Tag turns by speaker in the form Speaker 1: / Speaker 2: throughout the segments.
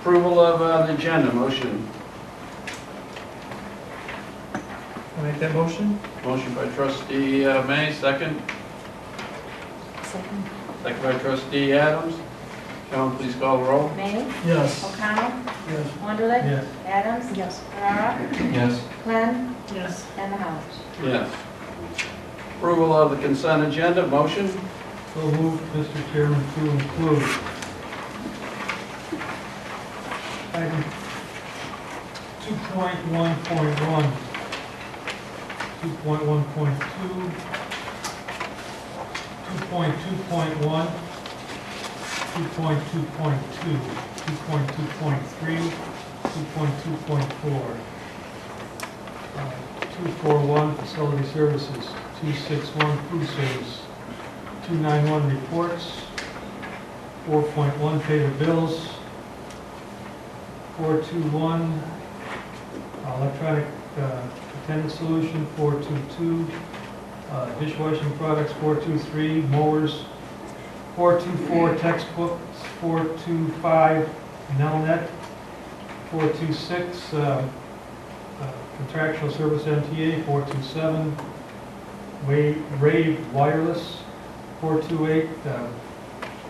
Speaker 1: Approval of uh, the agenda, motion.
Speaker 2: I'll make that motion.
Speaker 1: Motion by trustee uh, May, second.
Speaker 3: Second.
Speaker 1: Second by trustee Adams. John, please call the roll.
Speaker 4: May,
Speaker 2: Yes.
Speaker 4: O'Connell,
Speaker 2: Yes.
Speaker 4: Wonderlich,
Speaker 2: Yes.
Speaker 4: Adams,
Speaker 3: Yes.
Speaker 4: Ferrara,
Speaker 1: Yes.
Speaker 4: Glenn,
Speaker 3: Yes.
Speaker 4: and the House.
Speaker 1: Yes. Approval of the consent agenda, motion.
Speaker 2: So moved, Mr. Chairman, to include. Item 2.1.1, 2.1.2, 2.2.1, 2.2.2, 2.2.3, 2.2.4. Uh, 241, facility services, 261, food service, 291 reports, 4.1 paid bills, 421 electronic uh, attendance solution, 422 uh, dishwashing products, 423 mowers, 424 textbooks, 425 Nelnet, 426 uh, uh, contractual service MTA, 427 Wa- Rave Wireless, 428, uh,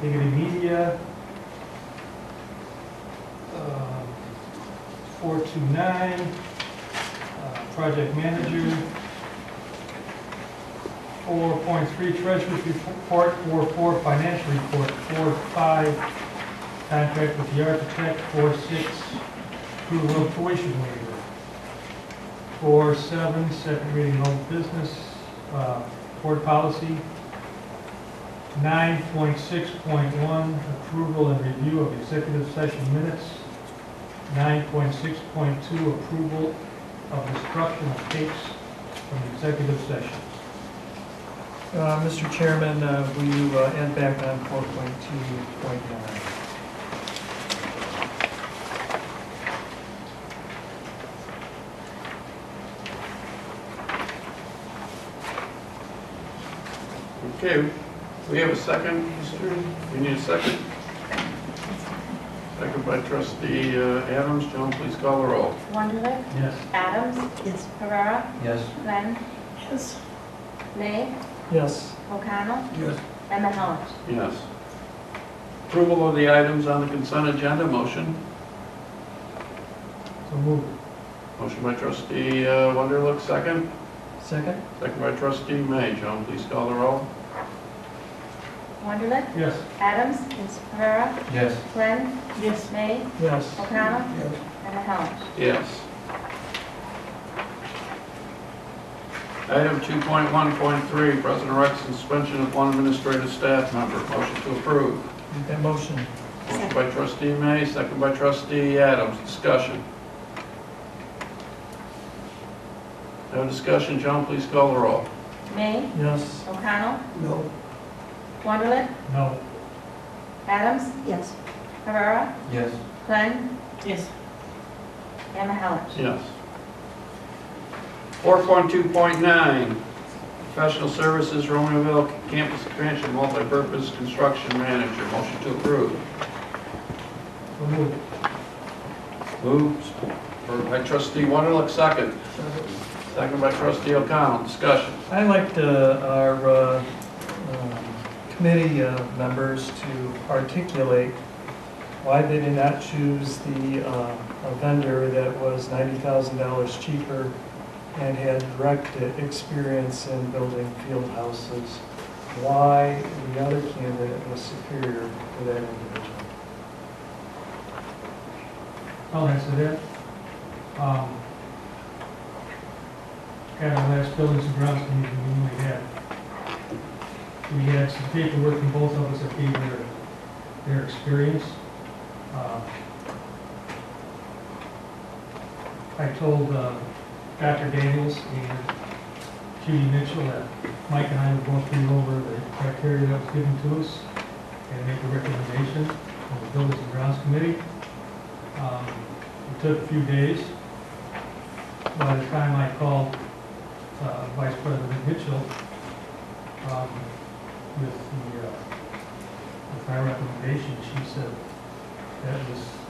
Speaker 2: Dignity Media, um, 429, uh, Project Manager, 4.3 Treasurer's Report, 4.4 Financial Report, 4.5 Contract with the Architect, 4.6 Approval of Tuition Waiver, 4.7 Second Reading of Old Business, uh, Board Policy, 9.6.1, approval and review of executive session minutes. 9.6.2, approval of destruction of tapes from executive sessions.
Speaker 5: Uh, Mr. Chairman, uh, will you uh, end back on 4.2.9?
Speaker 1: Okay, we have a second, Mr. We need a second. Second by trustee uh, Adams. John, please call the roll.
Speaker 4: Wonderlich,
Speaker 2: Yes.
Speaker 4: Adams,
Speaker 3: Yes.
Speaker 4: Ferrara,
Speaker 1: Yes.
Speaker 4: Glenn,
Speaker 3: Yes.
Speaker 4: May,
Speaker 5: Yes.
Speaker 4: O'Connell,
Speaker 1: Yes.
Speaker 4: and the House.
Speaker 1: Yes. Approval of the items on the consent agenda, motion.
Speaker 2: So move.
Speaker 1: Motion by trustee uh, Wunderlich, second.
Speaker 5: Second?
Speaker 1: Second by trustee May. John, please call the roll.
Speaker 4: Wonderlich,
Speaker 2: Yes.
Speaker 4: Adams, Ferrara,
Speaker 1: Yes.
Speaker 4: Glenn,
Speaker 3: Yes.
Speaker 4: May,
Speaker 5: Yes.
Speaker 4: O'Connell, and the House.
Speaker 1: Yes. Item 2.1.3, President Rex suspension of one administrative staff member. Motion to approve.
Speaker 5: Make that motion.
Speaker 1: Motion by trustee May, second by trustee Adams. Discussion. No discussion. John, please call the roll.
Speaker 4: May,
Speaker 5: Yes.
Speaker 4: O'Connell,
Speaker 5: No.
Speaker 4: Wonderlich,
Speaker 2: No.
Speaker 4: Adams,
Speaker 3: Yes.
Speaker 4: Ferrara,
Speaker 1: Yes.
Speaker 4: Glenn,
Speaker 3: Yes.
Speaker 4: and the House.
Speaker 1: Yes. 4.2.9, professional services, Romeoville Campus Expansion Multipurpose Construction Manager. Motion to approve.
Speaker 2: So move.
Speaker 1: Moved by trustee Wonderlich, second. Second by trustee O'Connell, discussion.
Speaker 5: I like to, our uh, um, committee uh, members to articulate why they did not choose the uh, a vendor that was $90,000 cheaper and had direct experience in building field houses, why the other candidate was superior to that individual.
Speaker 2: I'll answer that. Oh, Um, At our last buildings and grounds meeting, we knew we had, we had some paperwork from both of us that gave their, their experience. Uh, I told uh, Dr. Daniels and Judy Mitchell that Mike and I would both read over the criteria that was given to us and make a recommendation on the buildings and grounds committee. Um, It took a few days. By the time I called uh, Vice President Mitchell um, with the, uh, with my recommendation, she said that was